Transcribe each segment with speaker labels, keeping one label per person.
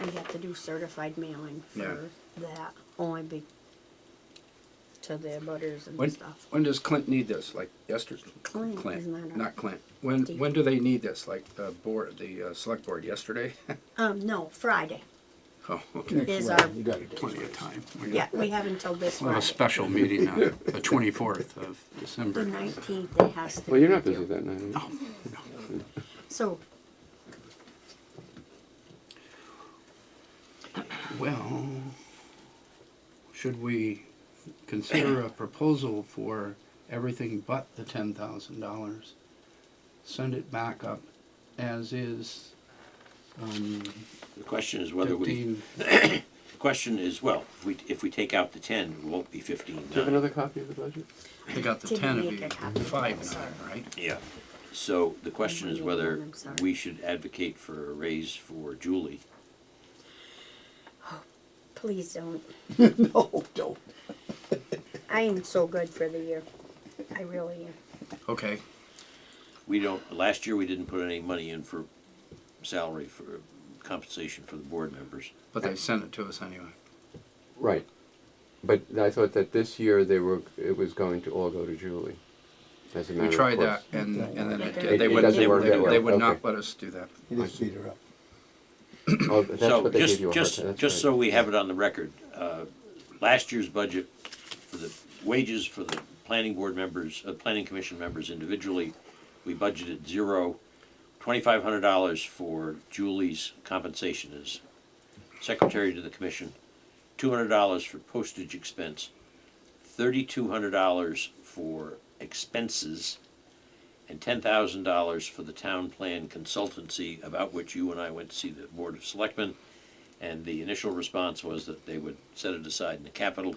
Speaker 1: we have to do certified mailing
Speaker 2: Yeah.
Speaker 1: for that, only be to the butters and
Speaker 3: When,
Speaker 1: stuff.
Speaker 3: when does Clint need this? Like yesterday?
Speaker 1: Clint,
Speaker 3: Clint,
Speaker 1: isn't that
Speaker 3: not
Speaker 1: right?
Speaker 3: Clint. When,
Speaker 1: Steve.
Speaker 3: when do they need this? Like the board, the uh, select board yesterday?
Speaker 1: Um, no, Friday.
Speaker 3: Oh, okay.
Speaker 1: Is
Speaker 4: Well,
Speaker 1: our-
Speaker 4: You got it.
Speaker 2: Plenty of time. We got-
Speaker 1: Yeah, we have until this
Speaker 2: We'll have a
Speaker 1: Friday.
Speaker 2: special meeting on the twenty-fourth of
Speaker 1: The
Speaker 2: December. Oh,
Speaker 1: nineteenth, it has to.
Speaker 5: Well, you're
Speaker 1: be
Speaker 5: not busy
Speaker 1: due.
Speaker 5: that night. are you?
Speaker 2: No, no.
Speaker 1: So,
Speaker 2: Well, should we consider a proposal for everything but the ten thousand dollars? Send it back up as is, um,
Speaker 6: The question is whether we,
Speaker 2: fifteen,
Speaker 6: the question is, well, if we, if we take out the ten, it won't be fifteen
Speaker 5: Do you have
Speaker 6: nine.
Speaker 5: another copy of the budget?
Speaker 3: They got the
Speaker 1: Didn't
Speaker 3: ten of
Speaker 1: make a copy.
Speaker 3: you, five
Speaker 1: Sorry.
Speaker 3: nine, right?
Speaker 6: Yeah. So the question is whether
Speaker 1: I'm sorry.
Speaker 6: we should advocate for a raise for Julie.
Speaker 1: please don't.
Speaker 4: No, don't.
Speaker 1: I am so good for the year. I really am.
Speaker 3: Okay,
Speaker 6: We don't, last year, we didn't put any money in for salary for compensation for the board members.
Speaker 3: but they sent it to us anyway.
Speaker 5: Right. But I thought that this year they were, it was going to all go to Julie. As a matter
Speaker 3: We
Speaker 5: of
Speaker 3: tried
Speaker 5: course.
Speaker 3: that and, and then it,
Speaker 1: It
Speaker 3: did- they
Speaker 1: doesn't
Speaker 3: would, they
Speaker 6: work that
Speaker 3: would, they
Speaker 5: way.
Speaker 3: would not
Speaker 5: Okay.
Speaker 3: let us do that.
Speaker 4: You just beat her up.
Speaker 5: Oh, that's
Speaker 6: So
Speaker 5: what they
Speaker 6: just,
Speaker 5: gave you a hard
Speaker 6: just,
Speaker 5: time, that's
Speaker 6: just
Speaker 5: right.
Speaker 6: so we have it on the record, uh, last year's budget for the wages for the planning board members, uh, planning commission members individually, we budgeted zero, twenty-five hundred dollars for Julie's compensation as secretary to the commission, two hundred dollars for postage expense, thirty-two hundred dollars for expenses, and ten thousand dollars for the town plan consultancy about which you and I went to see the Board of Selectmen. And the initial response was that they would set it aside in the capital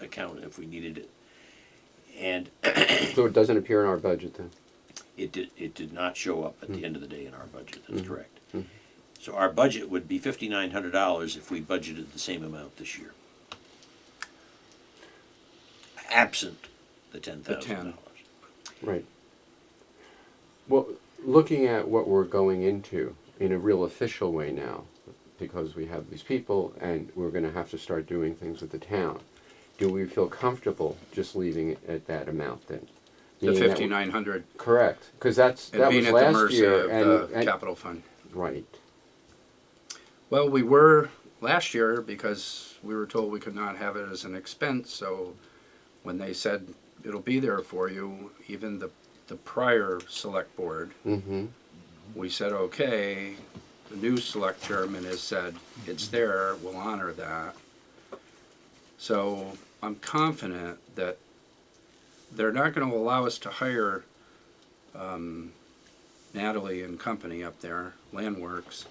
Speaker 6: account if we needed it. And
Speaker 5: So it doesn't appear in our budget then?
Speaker 6: it did, it did not show up at the end of the day in our budget, that's correct. So our budget would be fifty-nine hundred dollars if we budgeted the same amount this year. Absent the ten thousand dollars.
Speaker 5: Right. Well, looking at what we're going into in a real official way now, because we have these people and we're going to have to start doing things with the town, do we feel comfortable just leaving it at that amount then?
Speaker 3: The
Speaker 5: Meaning that-
Speaker 3: fifty-nine hundred
Speaker 5: Correct, because that's,
Speaker 3: and
Speaker 5: that
Speaker 3: being
Speaker 5: was
Speaker 3: at the
Speaker 5: last
Speaker 3: mercy
Speaker 5: year.
Speaker 3: of
Speaker 5: and-
Speaker 3: the
Speaker 5: and-
Speaker 3: capital fund.
Speaker 5: Right,
Speaker 3: Well, we were last year because we were told we could not have it as an expense, so when they said it'll be there for you, even the, the prior select board,
Speaker 5: mm-hmm,
Speaker 3: we said, okay, the new select chairman has said, it's
Speaker 5: Mm-hmm.
Speaker 3: there, we'll honor that. So I'm confident that they're not gonna allow us to hire, um, Natalie and company up there, Landworks,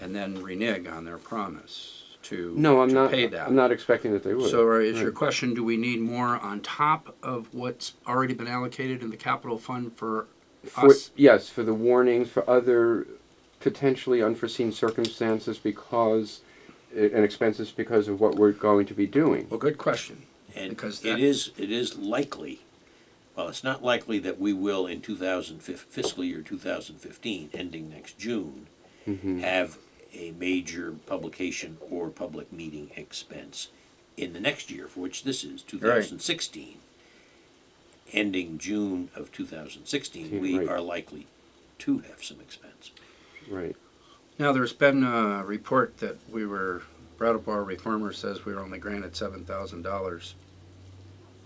Speaker 3: and then renege on their promise to,
Speaker 5: no, I'm
Speaker 3: to
Speaker 5: not,
Speaker 3: pay that.
Speaker 5: I'm not expecting that they would.
Speaker 3: So uh, is your
Speaker 5: Right.
Speaker 3: question, do we need more on top of what's already been allocated in the capital fund for
Speaker 5: For-
Speaker 3: us?
Speaker 5: Yes, for the warnings, for other potentially unforeseen circumstances because, eh, and expenses because of what we're going to be doing.
Speaker 3: Well, good question.
Speaker 6: And
Speaker 3: Because that-
Speaker 6: it is, it is likely, well, it's not likely that we will in two thousand fif- fiscal year two thousand fifteen, ending next June,
Speaker 3: Mm-hmm.
Speaker 6: have a major publication or public meeting expense in the next year, for which this is two thousand sixteen. Ending June of two thousand sixteen, we
Speaker 5: Right.
Speaker 6: are likely to have some expense.
Speaker 5: Right.
Speaker 3: Now, there's been a report that we were, Brattleboro Reformer says we were only granted seven thousand dollars,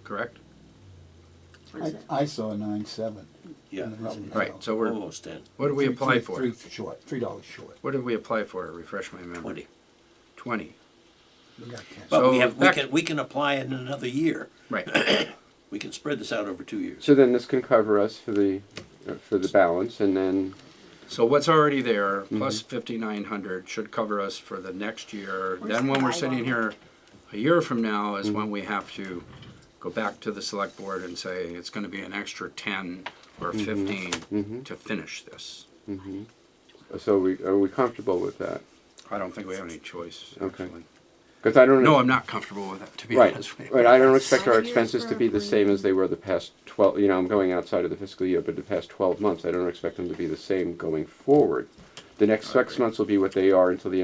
Speaker 3: correct?
Speaker 1: what is
Speaker 4: I,
Speaker 1: it?
Speaker 4: I saw nine seven.
Speaker 6: Yeah,
Speaker 4: Mm-hmm.
Speaker 3: Right, so we're,
Speaker 6: almost ten,
Speaker 3: what did we apply for?
Speaker 4: Three short, three dollars short.
Speaker 3: What did we apply for? Refresh my memory.
Speaker 6: twenty.
Speaker 3: Twenty,
Speaker 4: We got ten.
Speaker 6: But we
Speaker 3: So
Speaker 6: have, we
Speaker 3: back-
Speaker 6: can, we can apply it in another year.
Speaker 3: right.
Speaker 6: We can spread this out over two years.
Speaker 5: So then this can cover us for the, uh, for the balance and then,
Speaker 3: So what's already there,
Speaker 4: Mm-hmm.
Speaker 3: plus fifty-nine hundred, should cover us for the next year. Then when we're sitting here a year from now is
Speaker 4: Mm-hmm.
Speaker 3: when we have to go back to the select board and say, it's gonna be an extra ten or
Speaker 4: Mm-hmm.
Speaker 3: fifteen to finish this.
Speaker 5: so we, are we comfortable with that?
Speaker 3: I don't think we have any choice,
Speaker 5: Okay.
Speaker 3: actually.
Speaker 5: Because I don't.
Speaker 3: No, I'm not comfortable with that, to be
Speaker 5: Right,
Speaker 3: honest with you.
Speaker 5: right, I don't expect our
Speaker 1: Five years
Speaker 5: expenses to be the
Speaker 1: for-
Speaker 5: same as they were the past twelve, you know, I'm going outside of the fiscal year, but the past twelve months, I don't expect them to be the same going forward. The next six months will be what they are until the